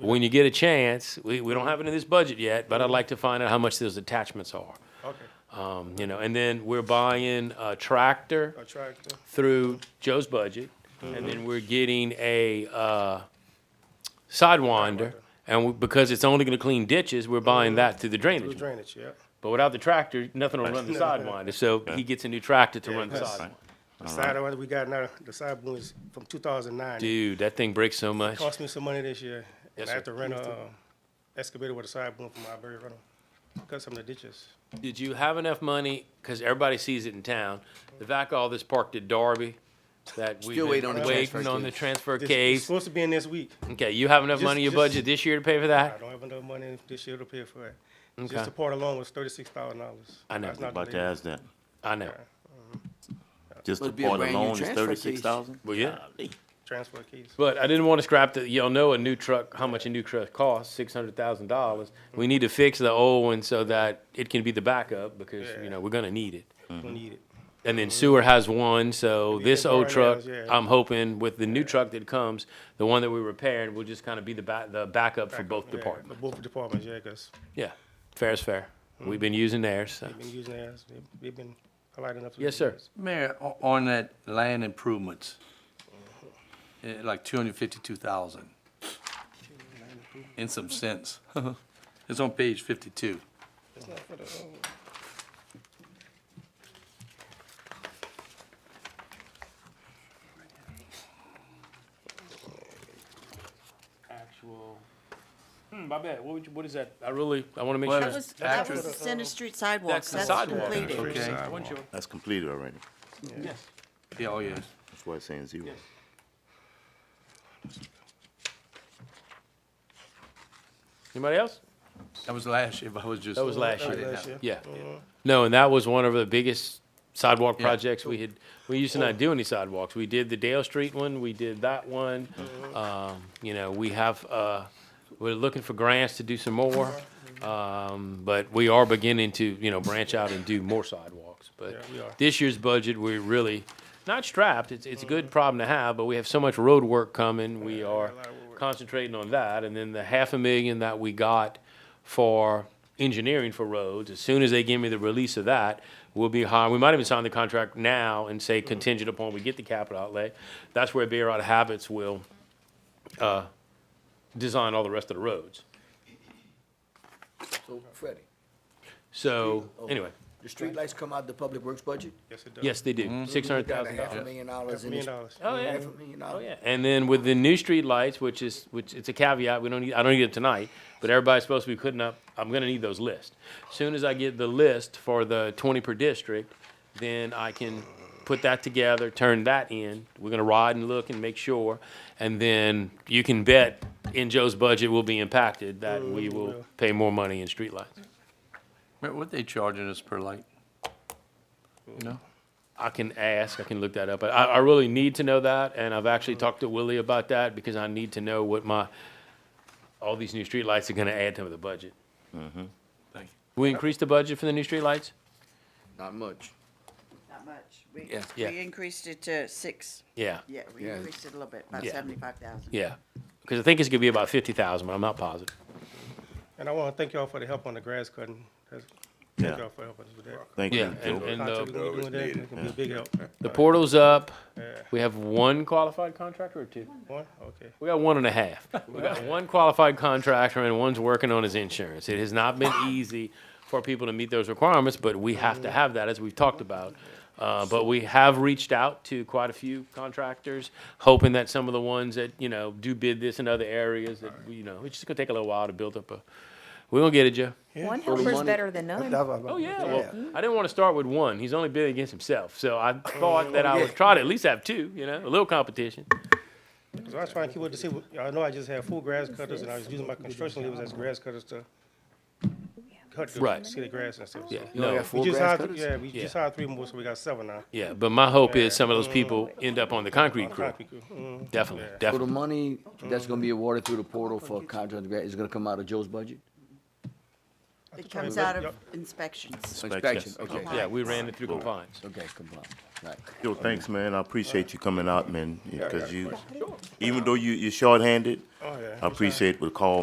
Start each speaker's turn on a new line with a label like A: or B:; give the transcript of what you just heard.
A: when you get a chance, we, we don't have it in this budget yet, but I'd like to find out how much those attachments are.
B: Okay,
A: Um, you know, and then we're buying a tractor
B: a tractor,
A: through Joe's budget, and then we're getting a uh, sidewinder. And we, because it's only going to clean ditches, we're buying that through the
B: through
A: drainage.
B: drainage, yeah.
A: But without the tractor, nothing will run the sidewinder. So he gets a new tractor to run the
B: Yes.
A: sidewinder.
B: The side one we got now, the side boom is from two thousand nine. It
A: Dude, that thing breaks so much.
B: Cost me some money this year.
A: Yes,
B: And I had
A: sir.
B: to rent a uh, excavator with a side boom for my Iberia rental, cut some of the ditches.
A: Did you have enough money? Because everybody sees it in town. The vac all that's parked at Darby, that we've
C: Still
A: been
C: waiting on the transfer
A: waiting on the
C: case.
A: transfer
B: This- It's
A: case.
B: supposed to be in this week.
A: Okay, you have enough
B: Just-
A: money in your
B: just-
A: budget this year to pay for
B: I
A: that?
B: don't have enough money this year to pay for it.
A: Okay.
B: Just the part alone was thirty-six thousand dollars.
A: I know.
D: About to ask that.
A: I know.
D: Just the
C: Would be a
D: part
C: brand new
D: alone is
C: transfer
D: thirty-six thousand?
A: Well, yeah.
B: Transfer keys.
A: But I didn't want to scrap the, y'all know a new truck, how much a new truck costs, six hundred thousand dollars. We need to fix the old one so that it can be the backup because, you know, we're gonna need it.
B: We need it.
A: And then sewer has one, so
B: Yeah,
A: this old
B: Barnell's,
A: truck,
B: yeah.
A: I'm hoping with the new truck that comes, the one that we repaired, will just kind of be the back, the backup for both
B: Yeah,
A: departments.
B: Both departments, yeah, because
A: Yeah, fair is fair. We've been using theirs, so.
B: they've been using theirs, They've- they've been polite enough. to
A: Yes,
B: use
A: sir.
B: us.
E: Mayor, o- on that land improvements, eh, like two hundred fifty-two thousand. In some sense. It's on page fifty-two.
B: It's not for the, oh,
A: Actual, hmm, my bad, what would you, what is that? I really, I wanna make
E: Well,
A: sure.
E: it
F: That was, that
E: Actress.
F: was the Center Street
A: That's
F: sidewalks,
A: the
F: that's
A: sidewalk.
F: completed.
E: Okay.
D: That's completed already.
A: Yes.
E: Yeah, oh, yeah.
D: That's why it's saying zero.
A: Anybody else?
E: That was last year, but I was just.
A: That was last
E: I
A: year.
E: didn't
B: last
E: know.
B: year.
A: Yeah.
B: Mm-hmm.
A: No, and that was one of the biggest sidewalk
E: Yeah.
A: projects we had, we used to not do any sidewalks. We did the Dale Street one, we did that one.
B: Mm-hmm.
A: Um, you know, we have, uh, we're looking for grants to do some more. Um, but we are beginning to, you know, branch out and do more sidewalks. But
B: Yeah, we are.
A: this year's budget, we're really not strapped. It's, it's a
B: Mm-hmm.
A: good problem to have, but we have so much road work coming. We are
B: a lot of road work.
A: concentrating on that. And then the half a million that we got for engineering for roads, as soon as they give me the release of that, we'll be high. We might even sign the contract now and say contingent upon we get the capital outlay. That's where Bear Out of Habits will, uh, design all the rest of the roads.
C: So Freddie,
A: So,
C: Oh,
A: anyway,
C: the streetlights come out of the public works budget?
B: Yes, it does.
A: yes, they do, six
C: We
A: hundred
C: got
A: thousand
C: a
A: dollars.
C: Mm-hmm. half a million dollars in
B: Million
C: this.
B: dollars.
A: Oh, yeah.
C: Half a million
A: Oh
C: dollars.
A: yeah, and then with the new street lights, which is which, it's a caveat. We don't need. I don't need it tonight, but everybody's supposed to be putting up. I'm gonna need those lists. Soon as I get the list for the 20 per district, then I can put that together, turn that in. We're gonna ride and look and make sure, and then you can bet in Joe's budget will be impacted that we will pay more money in street lights.
E: Mayor, What they charging us per light? You know?
A: I can ask, I can look that up. I, I really need to know that, and I've actually talked to Willie about that because I need to know what my, all these new streetlights are gonna add to the budget.
E: Thank you.
A: We increased the budget for the new streetlights?
C: Not much.
F: Not much. We,
C: Yeah.
A: Yeah.
F: we increased it to six,
A: Yeah,
F: yeah, we
C: Yeah.
F: increased it a little bit, about
A: Yeah.
F: seventy-five thousand.
A: yeah. Because I think it's gonna be about fifty thousand, but I'm not positive.
B: And I want to thank y'all for the help on the grass cutting. That's-
D: Yeah.
B: Thank y'all for helping us with that.
D: Thank
A: Yeah,
D: you.
A: and, uh,
D: Joe.
A: and
B: Contract
A: the,
B: we doing that, it can be a big help.
A: the portal's up.
B: Yeah.
A: We have one qualified contractor or two?
B: One, okay.
A: We got one and a half. We got one qualified contractor and one's working on his insurance. It has not been easy for people to meet those requirements, but we have to have that, as we've talked about. Uh, but we have reached out to quite a few contractors, hoping that some of the ones that, you know, do bid this in other areas, that, you know, it's just gonna take a little while to build up a, we gonna get it, Joe.
G: One helper's better than none.
A: Oh, yeah, well, I didn't wanna start with one. He's only bidding against himself, so I thought that I would try to at least have two, you know, a little competition.
B: So I was trying to keep up to see, what- y'all know I just had full grass cutters and I was using my construction levers as grass cutters to cut the,
A: Right.
B: see the grass and stuff. so-
A: Yeah,
C: only
A: no,
C: got
B: We
C: Full
B: just
C: grass
B: hired,
C: cutters?
B: yeah, we
A: Yeah.
B: just hired three more, so we got seven now.
A: yeah, but my hope is some of those people end up on the concrete crew.
B: Concrete crew. Mhm.
A: Definitely,
B: Yeah.
C: So the
A: definitely.
C: money that's gonna be awarded through the portal for contract grant is gonna come out of Joe's budget?
F: It comes out of inspections.
C: Inspection, okay,
A: Yeah, we ran it through compliance.
C: okay, come on, right.
D: Yo, thanks, man. I appreciate you coming out, man, because you, even though you, you're shorthanded,
B: Oh, yeah.
D: I appreciate the call